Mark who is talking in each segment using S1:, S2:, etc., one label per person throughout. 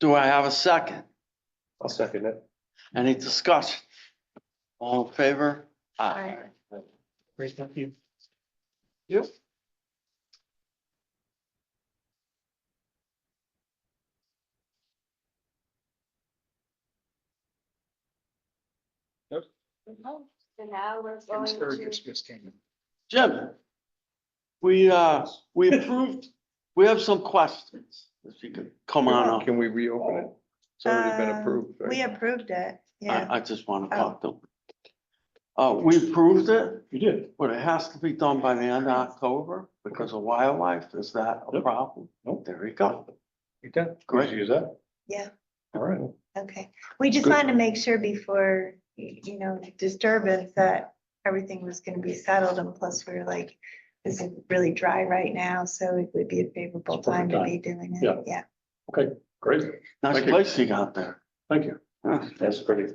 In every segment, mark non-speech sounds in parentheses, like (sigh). S1: Do I have a second?
S2: I'll second it.
S1: Any discussion? All in favor?
S3: Aye.
S2: Great, thank you.
S3: So now we're going to,
S1: Jim, we, uh, we approved, we have some questions, if you could come on up.
S2: Can we reopen it? It's already been
S4: Um,
S2: approved. right?
S4: We approved it, yeah.
S1: I, I just want to talk to them. Uh, we approved it,
S5: You did,
S1: but it has to be done by the end of October because of wildlife. Is that a
S5: Yep.
S1: problem?
S5: Nope.
S1: There you go.
S2: You done?
S1: Great.
S5: use that.
S4: Yeah.
S5: All right.
S4: Okay, we just
S2: Good.
S4: wanted to make sure before, y- you know, disturbance that everything was gonna be settled and plus we were like, this is really dry right now, so it would be a favorable
S5: It's a perfect
S4: time to be doing
S5: Yeah.
S4: it, yeah.
S5: Great,
S1: Nice
S5: Thank you.
S1: place you got there.
S5: thank you.
S1: Yeah,
S5: That's pretty.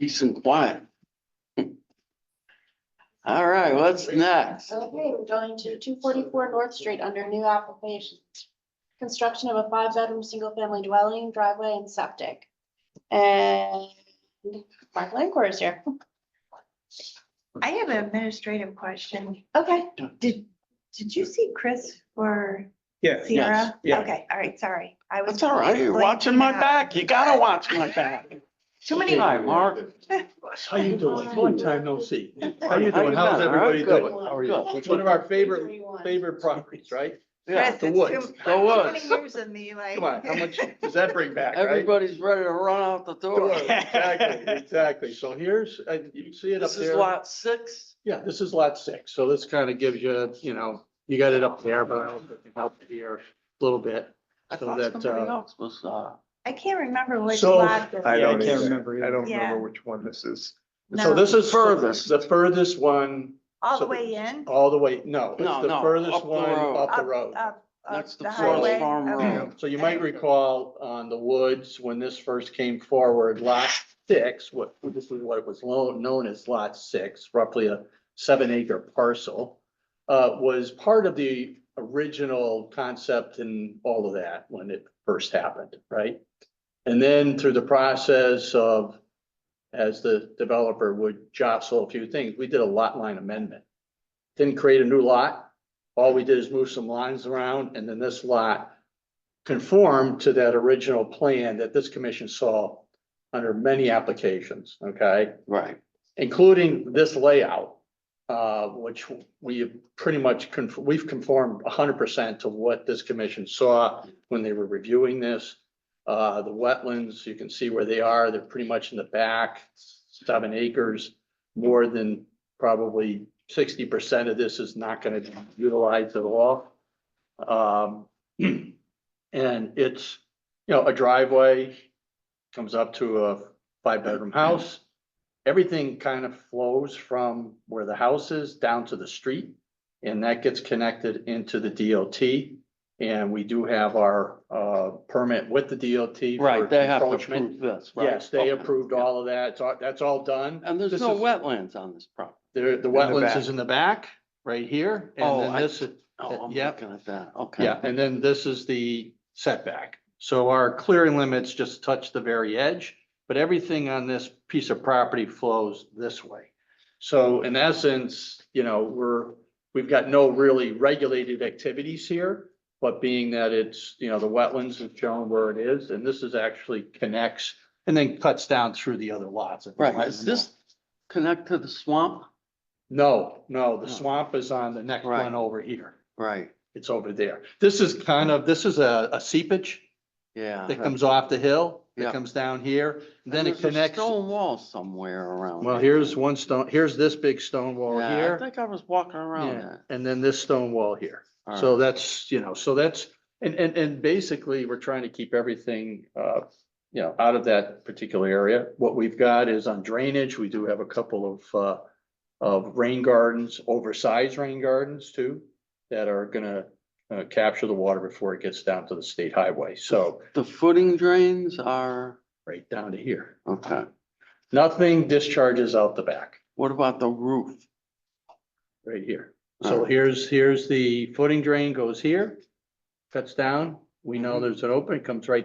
S1: Peace and quiet. (laughs) All right, what's next?
S3: okay, we're going to two forty-four North Street under new applications. Construction of a five-bedroom, single-family dwelling, driveway and septic. And Mark Langford is here.
S4: I have an administrative question.
S3: Okay,
S4: Did, did you see Chris or
S2: Yeah.
S4: (laughs)
S1: yes,
S4: Sierra?
S2: yeah.
S4: Okay, all right, sorry. I was. uh,
S1: That's all right. You're watching my
S4: blanking out.
S1: back. You gotta watch my back.
S4: Too many.
S1: Hi, Mark.
S5: How you doing? Long time no
S4: (laughs)
S5: see. How you doing?
S1: How
S5: How's
S1: you doing? All
S5: everybody
S1: right,
S5: doing?
S1: good.
S5: How are you?
S1: Good.
S2: It's one of our favorite,
S3: 331.
S2: favorite properties, right?
S1: Yeah,
S4: Chris,
S2: the
S4: it's
S2: woods.
S4: too-
S1: The
S4: too
S1: woods.
S4: many years in me, like.
S2: Come on, how much does that bring back, right?
S1: Everybody's ready to run out the door.
S6: (laughs)
S2: Exactly, exactly. So here's, uh, you can see it up
S1: This is
S2: there.
S1: lot six.
S2: Yeah, this is lot six, so this kind of gives you, you know, you got it up there, but I don't think it helped here a little bit.
S1: I
S2: So
S1: thought
S2: that,
S1: somebody
S2: uh,
S1: else was, uh,
S4: (laughs) I can't remember which
S2: So-
S4: lot. this
S6: I
S2: Yeah, I
S6: don't
S2: can't
S6: either.
S5: remember
S6: I
S5: either.
S6: don't remember
S4: Yeah.
S6: which one this is.
S2: So
S4: No,
S2: this is
S1: Furthest.
S2: furthest, the furthest one,
S4: All the
S2: so-
S4: way in,
S2: all the way, no,
S1: No,
S2: it's the
S1: no, up
S2: furthest
S1: the
S2: one
S1: road.
S2: up the
S4: Up,
S2: road.
S4: up,
S1: That's
S4: up
S1: the
S4: the
S1: Forest
S4: highway.
S1: Farm
S4: Okay.
S1: Road.
S2: So you might recall on the woods, when this first came forward, lot six, what, this is what it was lo- known as lot six, roughly a seven acre parcel. Uh, was part of the original concept and all of that when it first happened, right? And then through the process of, as the developer would jostle a few things, we did a lot line amendment. Didn't create a new lot. All we did is move some lines around and then this lot conform to that original plan that this commission saw under many applications, okay?
S1: right,
S2: Including this layout, uh, which we have pretty much, con- we've conformed hundred percent to what this commission saw when they were reviewing this. Uh, the wetlands, you can see where they are. They're pretty much in the back, seven acres. More than probably sixty percent of this is not gonna be utilized at all. Um, (clears throat) and it's, you know, a driveway comes up to a five-bedroom house. Everything kind of flows from where the house is down to the street. And that gets connected into the DOT. And we do have our uh permit with the DOT. for
S1: right. They have to
S2: encroachment.
S1: approve this, right?
S2: Yes, they
S1: Okay.
S2: approved all of that. It's all- That's all done.
S1: And there's
S2: This
S1: no
S2: is-
S1: wetlands on this property.
S2: The, the wetlands is in the back, right here.
S1: Oh,
S2: And then
S1: I-
S2: this, is-
S1: Oh, I'm
S2: Uh, Yep.
S1: looking at that. Okay.
S2: yeah, and then this is the setback. So our clearing limits just touch the very edge, but everything on this piece of property flows this way. So in essence, you know, we're, we've got no really regulated activities here. But being that it's, you know, the wetlands have shown where it is, and this is actually connects and then cuts down through the other lots.
S1: Right. Is this connect to the swamp?
S2: No, no, the
S1: No.
S2: swamp is on the next
S1: Right.
S2: one over here.
S1: Right,
S2: It's over there. This is kind of, this is a, a seepage
S1: yeah.
S2: that comes off the hill,
S1: Uh-huh. Yeah.
S2: that comes down here, and then it
S1: There's a
S2: connects.
S1: Stone wall somewhere around.
S2: Well,
S1: here.
S2: here's one stone, here's this big stone wall
S1: Yeah, I
S2: here,
S1: think I was walking around
S2: yeah,
S1: that.
S2: and then this stone wall here.
S1: All
S2: So
S1: right.
S2: that's, you know, so that's, and, and, and basically, we're trying to keep everything, uh, you know, out of that particular area. What we've got is on drainage, we do have a couple of, uh, of rain gardens, oversized rain gardens too, that are gonna, uh, capture the water before it gets down to the state highway. So
S1: The footing drains are,
S2: right down to here.
S1: okay.
S2: Nothing discharges out the back,
S1: What about the roof?
S2: right here.
S1: All
S2: So
S1: right.
S2: here's, here's the footing drain goes here, cuts down. We know
S1: Mhm.
S2: there's an open, it comes right